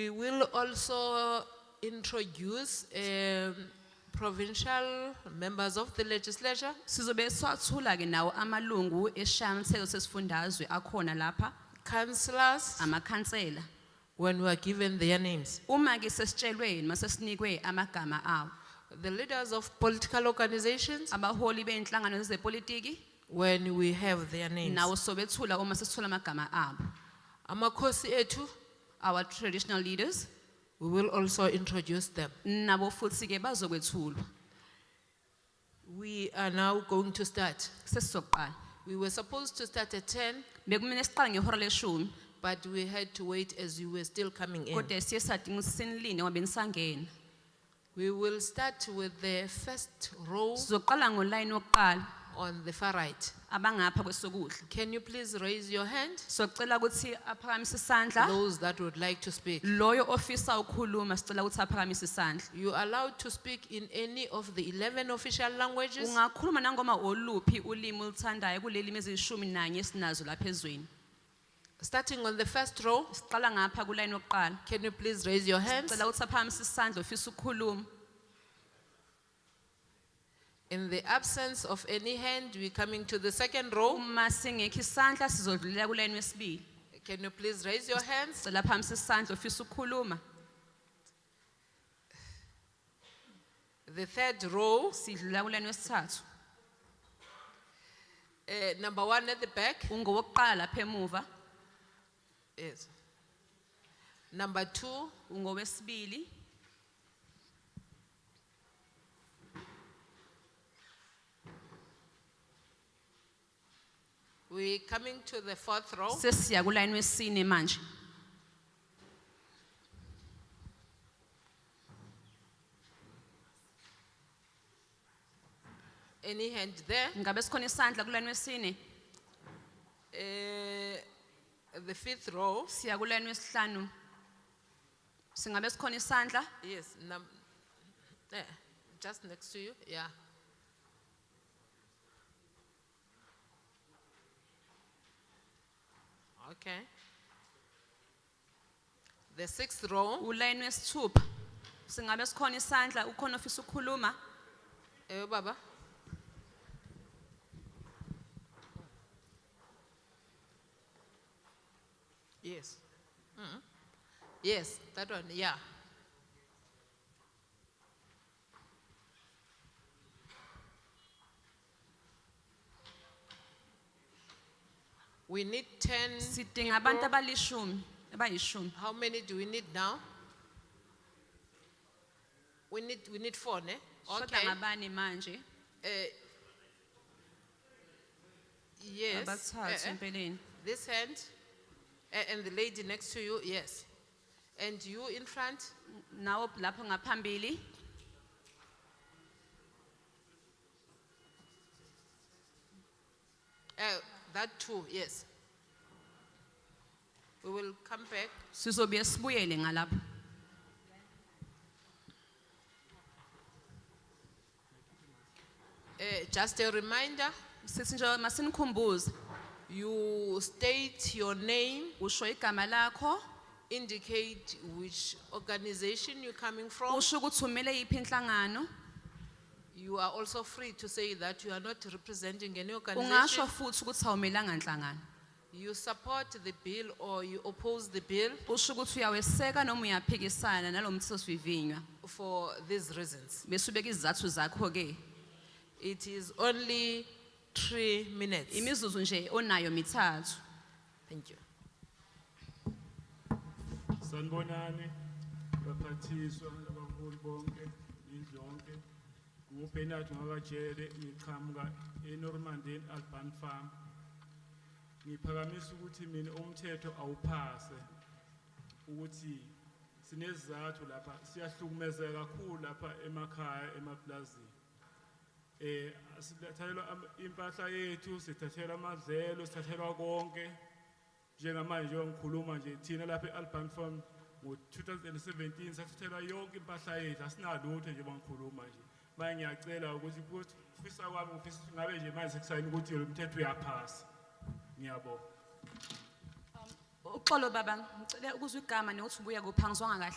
We will also introduce um, provincial members of the legislature Sizobe swathula ke nawo amalungu eshanselo sesifundazwe akhona lapha councillors amakhansela. when we are given their names. Uma ke sesitshelwe mase sinikwe amagama awo. The leaders of political organizations Abaholi beinhlangano zezepolitiki when we have their names. nawo sobethula uma sesithola amagama abo. Amakosi etu, Our traditional leaders we will also introduce them. nabo futhi ke bazokwethulwa. We are now going to start. Sesizoqala. We were supposed to start at ten, Bekumele siqale ngehora leshumi but we had to wait as you were still coming in. kodwa siye sadinga ukuthi sinilinde ngoba nisangena. We will start with the first row Sizoqala ngoline wokuqala on the far right. abangapha kwesokudla. Can you please raise your hand? Socela ukuthi aphakamise isandla. Those that would like to speak. Loyo ofisa ukukhuluma sicela ukuthi aphakamise isandla. You are allowed to speak in any of the 11 official languages. Ungakhuluma nangoma oluphi ulimi oluthandayo kuleli mezishumi nanye sinazo lapha ezweni. Starting on the first row, Siqala ngapha kuline wokuqala. can you please raise your hands? Sicela ukuthi aphakamise isandla ofisa ukukhuluma. In the absence of any hand, we're coming to the second row. Uma singekho isandla sizodlulela kuline wesibili. Can you please raise your hands? Sicela aphakamise isandla ofisa ukukhuluma. The third row, Sidlulela kuline wesithathu. uh, number one at the back. Ungowokuqala lapha emuva, Yes. Number two, ungowesibili, we're coming to the fourth row. sesiya kuline wesine manje. Any hand there? Ngabe sikhona isandla kuline wesine? Uh, the fifth row. Siya kuline wesihlanu. Singabe sikhona isandla? Yes, num, eh, just next to you, yeah. Okay. The sixth row, Uline wesithupha. Singabe sikhona isandla ukhona ofisa ukukhuluma? eh, Baba. Yes. Mm. Yes, that one, yeah. We need ten, Sidinga abantu abalishumi, abayishumi. how many do we need now? We need, we need four, ne? Shoda Okay. ngabani manje? Eh, Yes. Abathathu eh, eh, empeleni. This hand, eh, and the lady next to you, yes. And you in front, Nawo lapho ngaphambili. eh, that too, yes. We will come back. Sizobuye sibuyele ngalapho. Eh, Just a reminder, Sithi nje masinikhumbuze you state your name, usho igama lakho, indicate which organization you're coming from. usho ukuthi umele yiphi inhlangano. You are also free to say that you are not representing any Ungasho organization. futhi ukuthi awumelanga inhlangano. You support the bill or you oppose the bill Usho ukuthi uyaweseka noma uyaphikisana nalomthethosivivinywa. for these reasons. Bese ubeka izathu zakho ke. It is only three minutes. Imizuzu nje onayo mithathu. Thank you. Sanibonani baphathiswa abaholi bonke indlonke nguBenard Ngakajele ngiqhamuka eNormandy Alban Farm ngiphakamisa ukuthi mina umthetho awuphase ukuthi sinezathu lapha siyahlukumezeka kakhulu lapha emakhaya emaplazini eh sithathelwa am- impahla yethu sithathelwa amadlelo sithathelwa konke njengamanje njengoba ngikhuluma nje thina lapha e-alban farm ngo-2017 sathathelwa yonke impahla yethu asinalutho njengoba ngikhuluma nje manje ngiyacela ukuthi kuthi ufisa kwami ngifisa ukuthi ngabe nje manje sekusayini ukuthi lo mthetho uyaphasa ngiyabonga O- Uxolo baba, ngicela ukuzwa igama nokuthi ubuya kuphi ngizwanga kahle.